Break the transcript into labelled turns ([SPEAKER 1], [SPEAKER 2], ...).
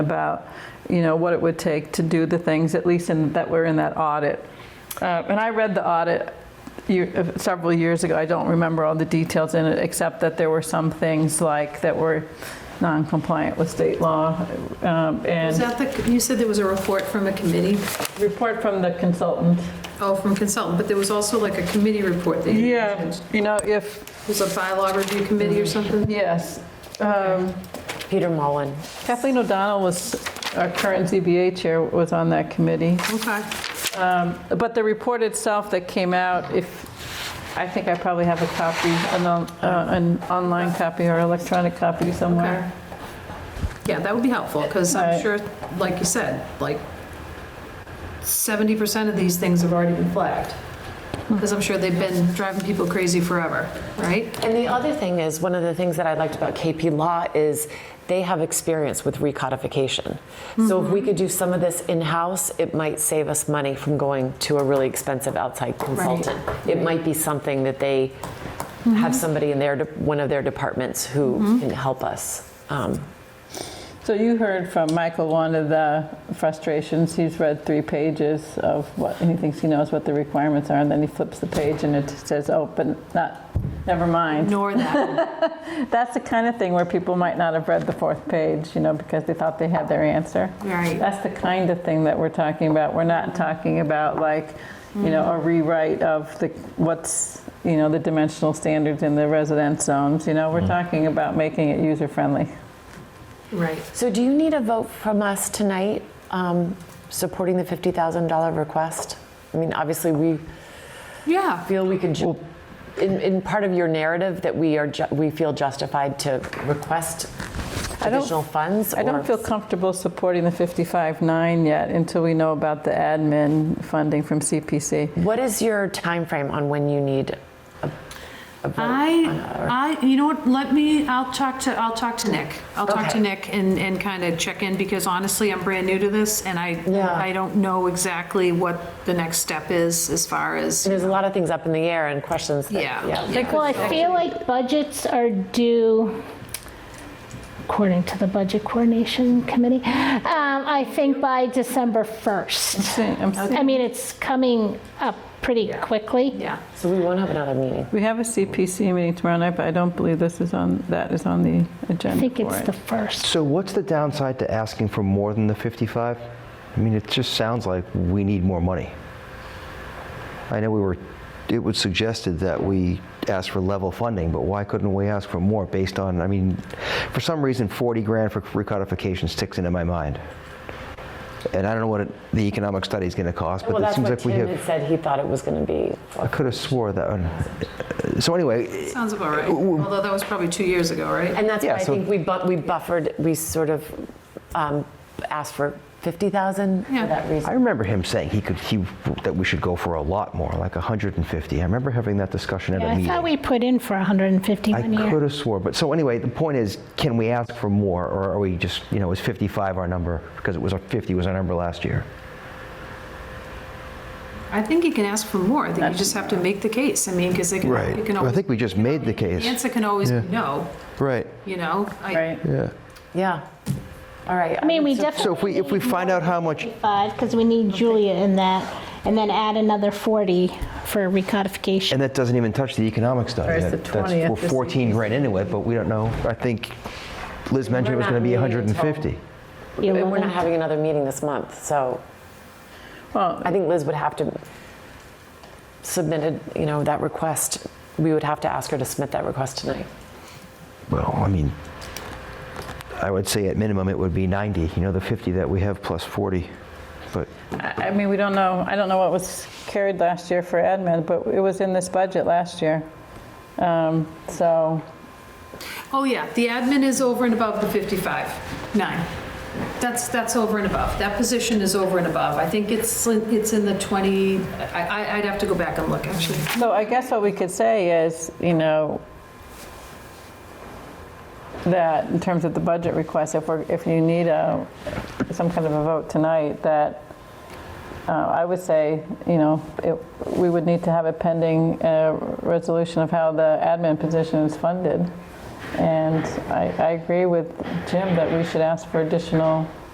[SPEAKER 1] about, you know, what it would take to do the things, at least in, that were in that audit. Uh, And I read the audit year- uh, several years ago. I don't remember all the details in it, except that there were some things like that were non-compliant with state law. um,
[SPEAKER 2] Is
[SPEAKER 1] And
[SPEAKER 2] that the, you said there was a report from a committee?
[SPEAKER 1] report from the consultant.
[SPEAKER 2] Oh, from consultant, but there was also like a committee report that you mentioned.
[SPEAKER 1] You know, if,
[SPEAKER 2] Was a bylaw review committee or something?
[SPEAKER 1] yes. um,
[SPEAKER 3] Peter Mullen.
[SPEAKER 1] Kathleen O'Donnell was, our current ZBA chair was on that committee.
[SPEAKER 2] Okay.
[SPEAKER 1] But the report itself that came out, if, I think I probably have a copy, an on- uh, an online copy or electronic copy
[SPEAKER 2] Okay.
[SPEAKER 1] somewhere.
[SPEAKER 2] Yeah, that would be helpful, because
[SPEAKER 1] All
[SPEAKER 2] I'm
[SPEAKER 1] right.
[SPEAKER 2] sure, like you said, like 70% of these things have already been flagged. Because I'm sure they've been driving people crazy forever, right?
[SPEAKER 3] And the other thing is, one of the things that I liked about KP Law is they have experience with recodification. So if we could do some of this in-house, it might save us money from going to a really expensive outside consultant. It might be something that they have somebody in their, de- one of their departments who can help us. Um,
[SPEAKER 1] So you heard from Michael one of the frustrations, he's read three pages of what, and he thinks he knows what the requirements are, and then he flips the page and it says, oh, but not, never mind.
[SPEAKER 2] Ignore that.
[SPEAKER 1] That's the kind of thing where people might not have read the fourth page, you know, because they thought they had their answer.
[SPEAKER 2] Right.
[SPEAKER 1] That's the kind of thing that we're talking about. We're not talking about like, you know, a rewrite of the, what's, you know, the dimensional standards in the residence zones, you know, we're talking about making it user-friendly.
[SPEAKER 2] Right.
[SPEAKER 3] So do you need a vote from us tonight um, supporting the $50,000 request? I mean, obviously, we
[SPEAKER 2] Yeah.
[SPEAKER 3] feel we could, ju- in, in part of your narrative, that we are, ju- we feel justified to request
[SPEAKER 1] don't-
[SPEAKER 3] additional funds?
[SPEAKER 1] I
[SPEAKER 3] or-
[SPEAKER 1] don't feel comfortable supporting the 55.9 yet until we know about the admin funding from CPC.
[SPEAKER 3] What is your timeframe on when you need a, a vote?
[SPEAKER 2] I, I, you know what, let me, I'll talk to, I'll talk to Nick. I'll talk to
[SPEAKER 3] Okay.
[SPEAKER 2] Nick and, and kind of check in, because honestly, I'm brand new to this, and I,
[SPEAKER 3] Yeah.
[SPEAKER 2] I don't know exactly what the next step is as far as,
[SPEAKER 3] There's a lot of things up in the air and questions that,
[SPEAKER 2] Yeah.
[SPEAKER 3] yeah.
[SPEAKER 4] Well, I feel like budgets are due, according to the Budget Coordination Committee, um, I think by December 1st.
[SPEAKER 1] See, I'm-
[SPEAKER 4] I mean, it's coming up pretty quickly.
[SPEAKER 2] yeah.
[SPEAKER 3] So we won't have another meeting.
[SPEAKER 1] We have a CPC meeting tomorrow night, but I don't believe this is on, that is on the
[SPEAKER 4] I
[SPEAKER 1] agenda
[SPEAKER 4] think
[SPEAKER 1] for
[SPEAKER 4] it's the
[SPEAKER 1] it.
[SPEAKER 4] 1st.
[SPEAKER 5] So what's the downside to asking for more than the 55? I mean, it just sounds like we need more money. I know we were, it was suggested that we ask for level funding, but why couldn't we ask for more based on, I mean, for some reason, 40 grand for recodification sticks into my mind. And I don't know what it- the economic study is going to cost, but
[SPEAKER 3] Well,
[SPEAKER 5] it
[SPEAKER 3] that's
[SPEAKER 5] seems
[SPEAKER 3] what
[SPEAKER 5] like we
[SPEAKER 3] Tim had
[SPEAKER 5] have,
[SPEAKER 3] said he thought it was going to be.
[SPEAKER 5] I could have swore that. one- So anyway,
[SPEAKER 2] Sounds about right, although that was probably two years ago, right?
[SPEAKER 3] And that's
[SPEAKER 5] Yeah,
[SPEAKER 3] why I
[SPEAKER 5] so-
[SPEAKER 3] think we bu- we buffered, we sort of um, asked for 50,000 for
[SPEAKER 2] Yeah.
[SPEAKER 3] that
[SPEAKER 5] I
[SPEAKER 3] reason.
[SPEAKER 5] remember him saying he could he that we should go for a lot more, like 150. I remember having that discussion at a
[SPEAKER 4] I
[SPEAKER 5] meeting.
[SPEAKER 4] thought we put in for 150
[SPEAKER 5] I
[SPEAKER 4] one year.
[SPEAKER 5] could have swore, but so anyway, the point is, can we ask for more, or are we just you know is 55 our number because it was our 50 was our number last year?
[SPEAKER 2] I think you can ask for more, I think you just have to make the case, I mean, because they can, you can
[SPEAKER 5] Well, I
[SPEAKER 2] always,
[SPEAKER 5] think we just made the
[SPEAKER 2] the
[SPEAKER 5] case.
[SPEAKER 2] answer can always be no,
[SPEAKER 5] Right.
[SPEAKER 2] you know? I-
[SPEAKER 1] Right.
[SPEAKER 5] Yeah.
[SPEAKER 3] Yeah. All right.
[SPEAKER 4] I mean, we definitely.
[SPEAKER 5] So if we if we find out how much
[SPEAKER 4] because we need Julia in that, and then add another 40 for recodification.
[SPEAKER 5] And that doesn't even touch the economic study.
[SPEAKER 1] Or it's the
[SPEAKER 5] That- that's-
[SPEAKER 1] 20th,
[SPEAKER 5] We're
[SPEAKER 1] just
[SPEAKER 5] 14 grand into it, but we don't know. I think Liz mentioned it was
[SPEAKER 3] not
[SPEAKER 5] going to be
[SPEAKER 3] meeting until-
[SPEAKER 5] 150.
[SPEAKER 4] The
[SPEAKER 3] And we're not
[SPEAKER 4] 11th.
[SPEAKER 3] having another meeting this month, so
[SPEAKER 1] Well-
[SPEAKER 3] I think Liz would have to submit, a- you know, that request. We would have to ask her to submit that request tonight.
[SPEAKER 5] Well, I mean, I would say at minimum it would be 90, you know, the 50 that we have plus 40. But
[SPEAKER 1] I I mean, we don't know, I don't know what was carried last year for admin, but it was in this budget last year. Um, So,
[SPEAKER 2] Oh, yeah, the admin is over and above the 55, nine. That's, that's over and above. That position is over and above. I think it's, it's in the 20, I, I- I'd have to go back and look, actually.
[SPEAKER 1] so I guess what we could say is, you know, that in terms of the budget request, if we're, if you need a, some kind of a vote tonight, that uh, I would say, you know, it- we would need to have a pending uh, resolution of how the admin position is funded. And I, I agree with Jim that we should ask for additional